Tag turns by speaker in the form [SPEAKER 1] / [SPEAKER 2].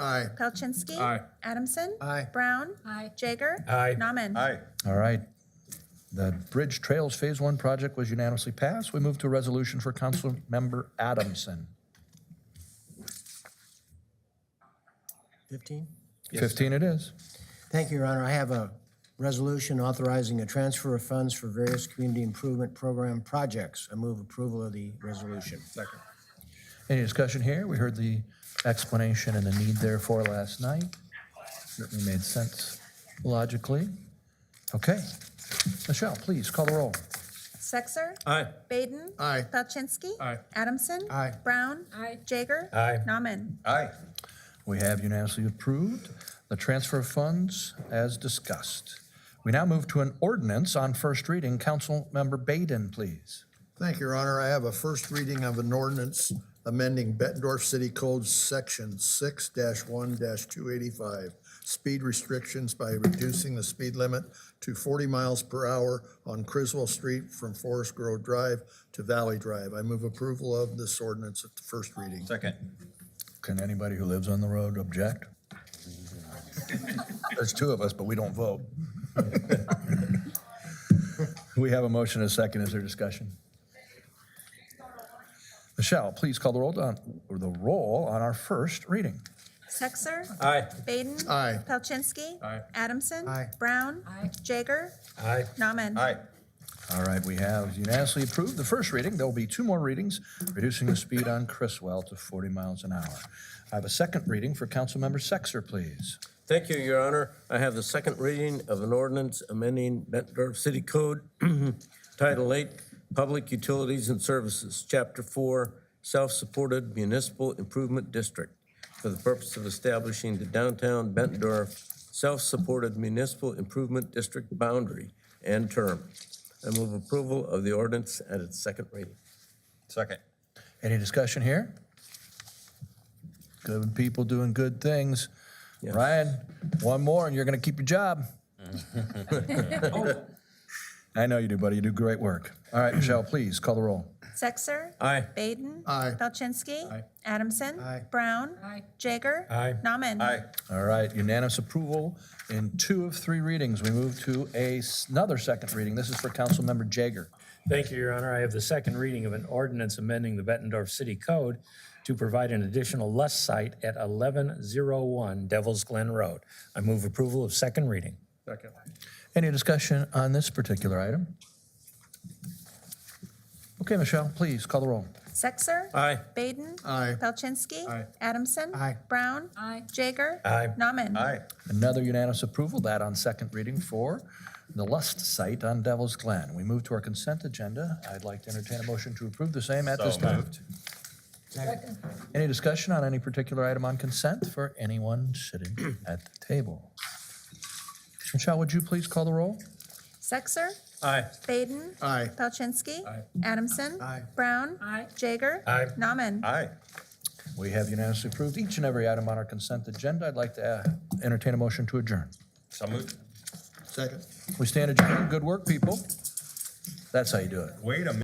[SPEAKER 1] Aye.
[SPEAKER 2] Palczynski.
[SPEAKER 3] Aye.
[SPEAKER 2] Adamson.
[SPEAKER 1] Aye.
[SPEAKER 2] Brown.
[SPEAKER 4] Aye.
[SPEAKER 2] Jaeger.
[SPEAKER 3] Aye.
[SPEAKER 2] Nauman.
[SPEAKER 1] Aye.
[SPEAKER 5] All right. The Bridge Trails Phase One project was unanimously passed. We move to a resolution for Councilmember Adamson.
[SPEAKER 1] 15?
[SPEAKER 5] 15 it is.
[SPEAKER 1] Thank you, Your Honor. I have a resolution authorizing a transfer of funds for various community improvement program projects. I move approval of the resolution. Second.
[SPEAKER 5] Any discussion here? We heard the explanation and the need therefore last night. Certainly made sense logically. Okay. Michelle, please call the roll.
[SPEAKER 2] Sexer.
[SPEAKER 3] Aye.
[SPEAKER 2] Baden.
[SPEAKER 1] Aye.
[SPEAKER 2] Palczynski.
[SPEAKER 3] Aye.
[SPEAKER 2] Adamson.
[SPEAKER 1] Aye.
[SPEAKER 2] Brown.
[SPEAKER 4] Aye.
[SPEAKER 2] Jaeger.
[SPEAKER 3] Aye.
[SPEAKER 2] Nauman.
[SPEAKER 1] Aye.
[SPEAKER 5] We have unanimously approved the transfer of funds as discussed. We now move to an ordinance on first reading. Councilmember Baden, please.
[SPEAKER 6] Thank you, Your Honor. I have a first reading of an ordinance amending Bettendorf City Code Section six one two eighty-five, speed restrictions by reducing the speed limit to forty miles per hour on Criswell Street from Forest Grove Drive to Valley Drive. I move approval of this ordinance at the first reading.
[SPEAKER 3] Second.
[SPEAKER 5] Can anybody who lives on the road object? There's two of us, but we don't vote. We have a motion and a second. Is there discussion? Michelle, please call the roll on, or the roll on our first reading.
[SPEAKER 2] Sexer.
[SPEAKER 3] Aye.
[SPEAKER 2] Baden.
[SPEAKER 6] Aye.
[SPEAKER 2] Palczynski.
[SPEAKER 3] Aye.
[SPEAKER 2] Adamson.
[SPEAKER 1] Aye.
[SPEAKER 2] Brown.
[SPEAKER 4] Aye.
[SPEAKER 2] Jaeger.
[SPEAKER 3] Aye.
[SPEAKER 2] Nauman.
[SPEAKER 3] Aye.
[SPEAKER 5] All right, we have unanimously approved the first reading. There will be two more readings, reducing the speed on Criswell to 40 miles an hour. I have a second reading for Councilmember Sexer, please.
[SPEAKER 3] Thank you, Your Honor. I have the second reading of an ordinance amending Bettendorf City Code, Title 8, Public Utilities and Services, Chapter 4, Self-Supported Municipal Improvement District, for the purpose of establishing the downtown Bettendorf Self-Supported Municipal Improvement District boundary and term. I move approval of the ordinance at its second reading. Second.
[SPEAKER 5] Any discussion here? Good people doing good things. Ryan, one more and you're going to keep your job. I know you do, buddy. You do great work. All right, Michelle, please call the roll.
[SPEAKER 2] Sexer.
[SPEAKER 3] Aye.
[SPEAKER 2] Baden.
[SPEAKER 6] Aye.
[SPEAKER 2] Palczynski. Adamson.
[SPEAKER 1] Aye.
[SPEAKER 2] Brown.
[SPEAKER 4] Aye.
[SPEAKER 2] Jaeger.
[SPEAKER 3] Aye.
[SPEAKER 2] Nauman.
[SPEAKER 5] All right, unanimous approval in two of three readings. We move to a, s- another second reading. This is for Councilmember Jaeger.
[SPEAKER 7] Thank you, Your Honor. I have the second reading of an ordinance amending the Bettendorf City Code to provide an additional lust site at 1101 Devil's Glen Road. I move approval of second reading.
[SPEAKER 3] Second.
[SPEAKER 5] Any discussion on this particular item? Okay, Michelle, please call the roll.
[SPEAKER 2] Sexer.
[SPEAKER 3] Aye.
[SPEAKER 2] Baden.
[SPEAKER 6] Aye.
[SPEAKER 2] Palczynski.
[SPEAKER 3] Aye.
[SPEAKER 2] Adamson.
[SPEAKER 1] Aye.
[SPEAKER 2] Brown.
[SPEAKER 4] Aye.
[SPEAKER 2] Jaeger.
[SPEAKER 3] Aye.
[SPEAKER 2] Nauman.
[SPEAKER 5] Another unanimous approval, that on second reading for the Lust site on Devil's Glen. We move to our consent agenda. I'd like to entertain a motion to approve the same at this time. Any discussion on any particular item on consent for anyone sitting at the table? Michelle, would you please call the roll?
[SPEAKER 2] Sexer.
[SPEAKER 3] Aye.
[SPEAKER 2] Baden.
[SPEAKER 6] Aye.
[SPEAKER 2] Palczynski. Adamson. Brown.
[SPEAKER 4] Aye.
[SPEAKER 2] Jaeger.
[SPEAKER 3] Aye.
[SPEAKER 2] Nauman.
[SPEAKER 3] Aye.
[SPEAKER 5] We have unanimously approved each and every item on our consent agenda. I'd like to uh, entertain a motion to adjourn.
[SPEAKER 3] So moved.
[SPEAKER 6] Second.
[SPEAKER 5] We stand adjourned. Good work, people. That's how you do it.
[SPEAKER 3] Wait a minute.